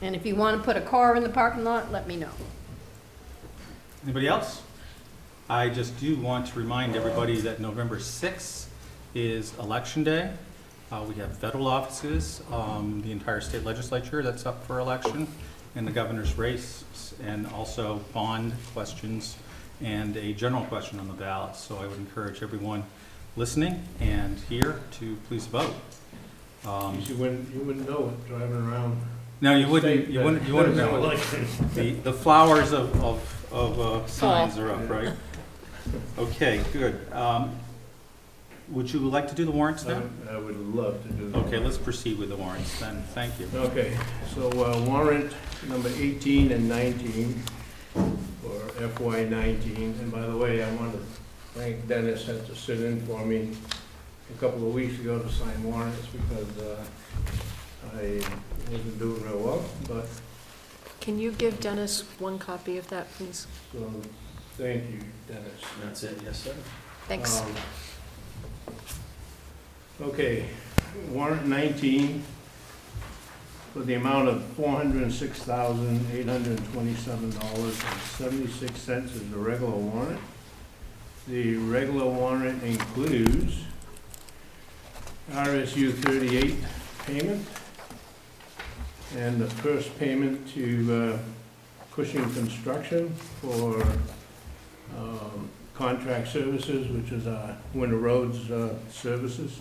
And if you want to put a car in the parking lot, let me know. Anybody else? I just do want to remind everybody that November 6th is Election Day. Uh, We have federal offices, um, the entire state legislature that's up for election, and the governor's race, and also bond questions and a general question on the ballot. So I would encourage everyone listening and here to please vote. Um, You wouldn't, you wouldn't know it driving around. No, you the wouldn't, state you that wouldn't, you wouldn't there's know. no election. The, the flowers of, of, of uh, signs are up, right? Okay, good. Um, Would you like to do the warrants now? I I would love to do that. Okay, let's proceed with the warrants then, thank you. Okay, so uh, warrant number 18 and 19 for FY 19. And by the way, I want to thank Dennis had to sit in for me a couple of weeks ago to sign warrants because uh, I wasn't doing real well, but Can you give Dennis one copy of that, please? so, thank you, Dennis. That's it, yes, sir. Thanks. Um, Okay, warrant 19 for the amount of $406,827.76 is the regular warrant. The regular warrant includes RSU 38 payment and the first payment to uh, Cushing Construction for um, contract services, which is uh, winter roads uh, services.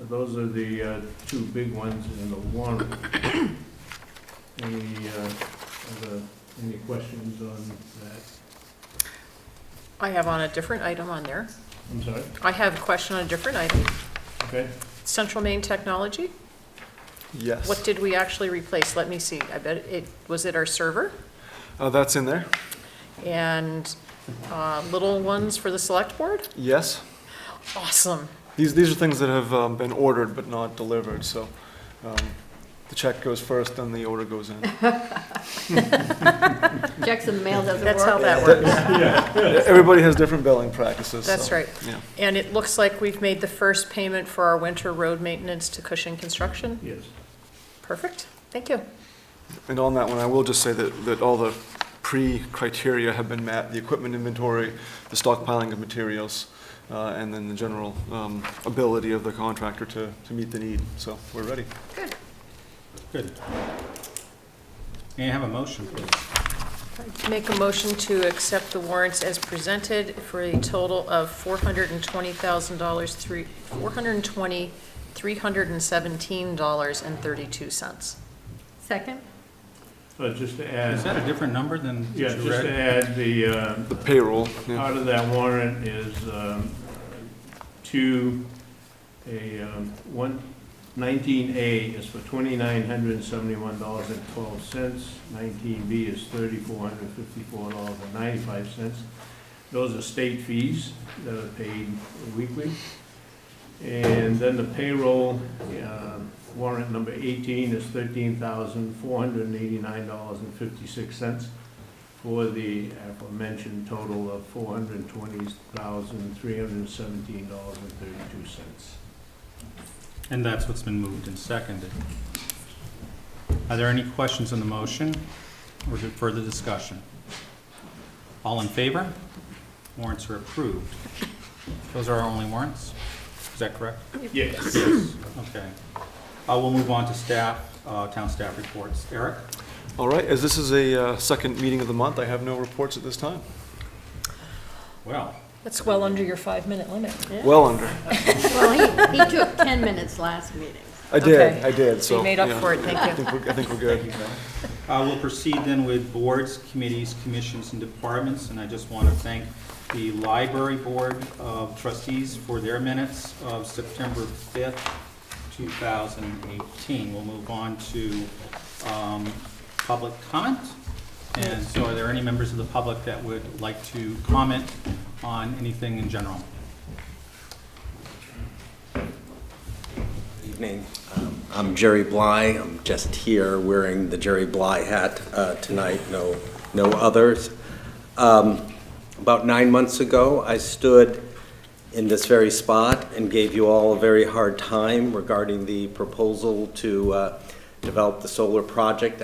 Uh, Those are the uh, two big ones in the warrant. Any, uh, other- any questions on that? I have on a different item on there. I'm sorry, I have a question on a different item. okay? Central Maine Technology, Yes. what did we actually replace? Let me see. I bet it, was it our server? Uh, that's in there. And uh, little ones for the select board? Yes. Awesome. These these are things that have um, been ordered but not delivered. So um, the check goes first, then the order goes in. Checks in the mail doesn't work. That's how that works. Everybody has different billing practices. so, That's right. Yeah. And it looks like we've made the first payment for our winter road maintenance to Cushing Construction. Yes. Perfect. Thank you. And on that one, I will just say that that all the pre-criteria have been met: the equipment inventory, the stockpiling of materials, uh, and then the general um, ability of the contractor to to meet the need. So we're ready. Good. May I have a motion, please? Make a motion to accept the warrants as presented for a total of four hundred and twenty thousand dollars, three, four hundred and twenty, three hundred and seventeen dollars and thirty-two cents. Second? So Uh, just to Is add, that a different number than yeah, what just you to read? add the, uh, The payroll. Yeah. Part of that warrant is um, to a, um, one, 19A is for $2,971.12. 19B is $3,454.95. Those are state fees that are paid weekly. And then the payroll um, warrant number 18 is $13,489.56 for the aforementioned total of four hundred and twenty thousand, three hundred and seventeen dollars and thirty-two cents. And that's what's been moved and seconded. Are there any questions on the motion or is it further discussion? All in favor? Warrants are approved. Those are our only warrants? Is that correct? Yes. Yes. Okay. Uh, We'll move on to staff, uh, town staff reports. Eric? All right. As this is a uh, second meeting of the month, I have no reports at this time. Well, That's well under your five-minute limit. Well under. Well, he, he took 10 minutes last meeting. I Okay. did, I did, so. So you made up yeah. for it, thank I you. think we're, I think we're good. Uh, We'll proceed then with boards, committees, commissions, and departments, and I just want to thank the Library Board of Trustees for their minutes of September 5th, 2018. We'll move on to um, public comment. And so are there any members of the public that would like to comment on anything in general? Evening. Um, I'm Jerry Bly. I'm just here wearing the Jerry Bly hat uh, tonight, no, no others. Um, About nine months ago, I stood in this very spot and gave you all a very hard time regarding the proposal to uh, developed the solar project